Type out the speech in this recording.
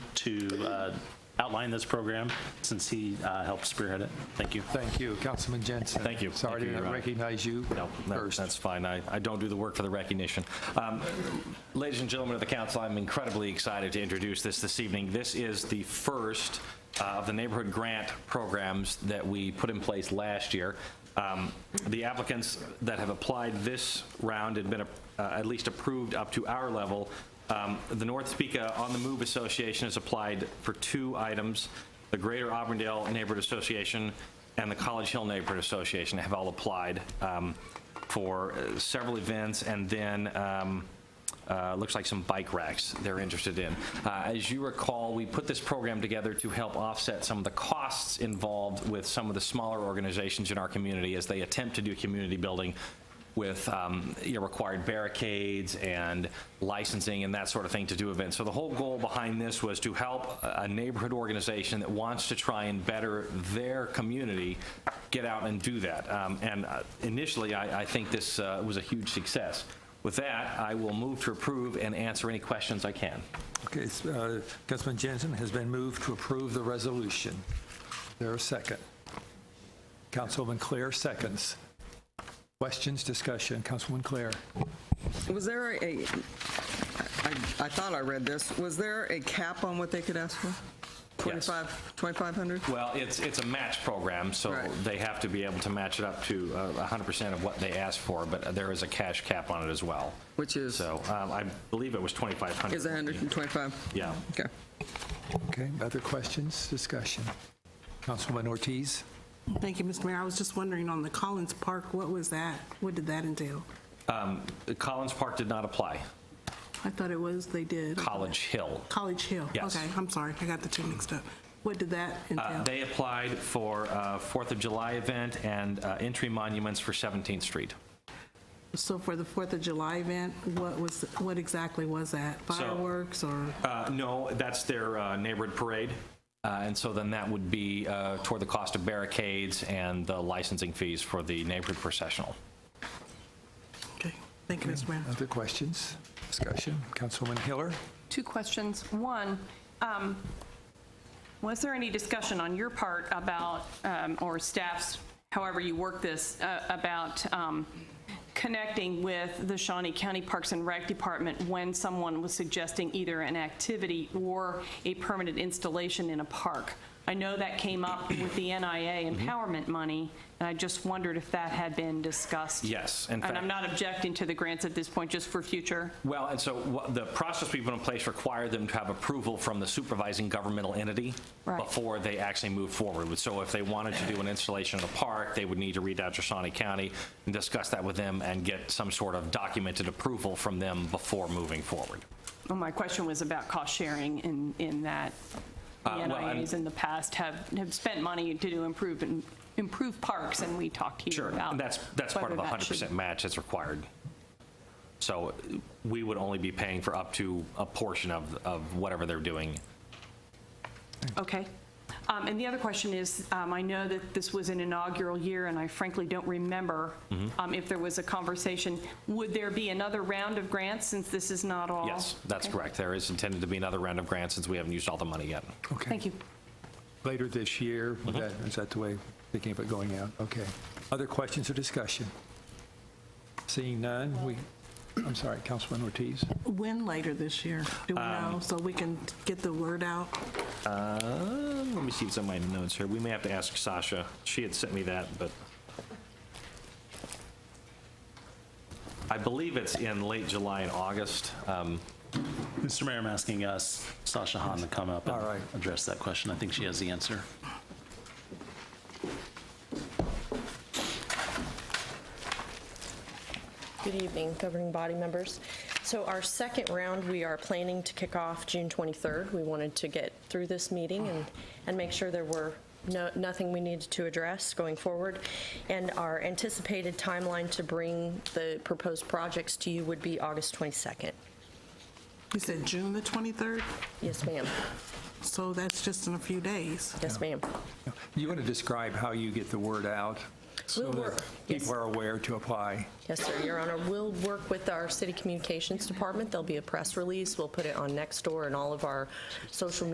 to uh, outline this program since he uh, helped spearhead it. Thank you. Thank you, Councilman Jensen. Thank you. Sorry Thank you, to Your not Honor. recognize you No, no, first. that's fine. I, I don't do the work for the recognition. Um, Ladies and gentlemen of the council, I'm incredibly excited to introduce this this evening. This is the first uh, of the neighborhood grant programs that we put in place last year. Um, The applicants that have applied this round had been uh, at least approved up to our level. Um, The North Topeka On the Move Association has applied for two items. The Greater Auburndale Neighborhood Association and the College Hill Neighborhood Association have all applied um, for uh, several events, and then um, uh, looks like some bike racks they're interested in. Uh, As you recall, we put this program together to help offset some of the costs involved with some of the smaller organizations in our community as they attempt to do community building with um, you know, required barricades and licensing and that sort of thing to do events. So the whole goal behind this was to help a a neighborhood organization that wants to try and better their community get out and do that. Um, and uh, initially, I, I think this uh, was a huge success. With that, I will move to approve and answer any questions I can. Okay, it's, uh, Councilman Jensen has been moved to approve the resolution. There a second? Councilwoman Claire seconds. Questions, discussion, Councilwoman Claire? Was there a, I I thought I read this, was there a cap on what they could ask for? 25, 2,500? Well, it's, it's a match program, so Right. they have to be able to match it up to uh, 100% of what they ask for, but there is a cash cap on it as well. Which is, So um, I believe it was 2,500. is 125? Yeah. Okay. Okay, other questions, discussion? Councilwoman Ortiz? Thank you, Mr. Mayor. I was just wondering on the Collins Park, what was that? What did that entail? Um, Collins Park did not apply. I thought it was, they did. College Hill. College Hill? Yes. Okay, I'm sorry, I got the two mixed up. What did that Uh, entail? They applied for uh, Fourth of July event and uh, entry monuments for 17th Street. So for the Fourth of July event, what was, what exactly was that? Fireworks or, Uh, No, that's their uh, neighborhood parade, Uh, and so then that would be uh, toward the cost of barricades and the licensing fees for the neighborhood processional. okay, thank you, Mr. Mayor. Other questions, discussion? Councilwoman Hiller? Two questions. One, um, was there any discussion on your part about, um, or staff's, however you work this, uh, about um, connecting with the Shawnee County Parks and Rec Department when someone was suggesting either an activity or a permanent installation in a park? I know that came up with the NIA Mm-hmm. empowerment money, and I just wondered if that had been discussed. Yes, in And fact- I'm not objecting to the grants at this point, just for future. Well, and so what- the process we put in place required them to have approval from the supervising governmental entity Right. before they actually move forward. with. So if they wanted to do an installation in a park, they would need to reach out to Shawnee County and discuss that with them and get some sort of documented approval from them before moving forward. Well, my question was about cost sharing in, in that the Uh, well, I'm- NIAs in the past have, have spent money to do improve, and improve parks, and we talked here about. And that's, that's part of the whether Oh, that should- 100% match that's required. So we would only be paying for up to a portion of, of whatever they're doing. Okay. Um, And the other question is, um, I know that this was an inaugural year, and I frankly don't remember Mm-hmm. um, if there was a conversation. Would there be another round of grants, since this is not all? Yes, that's Oh, Okay. correct. There is intended to be another round of grants since we haven't used all the money yet. Okay. Thank you. Later this year, is that- is that the way, thinking of it going out? Okay. Other questions or discussion? Seeing none, we, I'm sorry, Councilwoman Ortiz? When later this year? Do we Um, know, so we can get the word out? Uh, Let me see what's on my notes here. We may have to ask Sasha. She had sent me that, but I believe it's in late July and August. Um, Mr. Mayor, I'm asking us, Sasha Hahn, to come up All and right. address that question. I think she has the answer. Good evening, governing body members. So our second round, we are planning to kick off June 23rd. We wanted to get through this meeting and, and make sure there were no, nothing we needed to address going forward. And our anticipated timeline to bring the proposed projects to you would be August 22nd. You said June the 23rd, Yes, ma'am. so that's just in a few days. Yes, ma'am. You want to describe how you get the word out? so We'll that work- yes. People are aware to apply. Yes, sir, Your Honor. We'll work with our city communications department. There'll be a press release. We'll put it on Nextdoor and all of our social media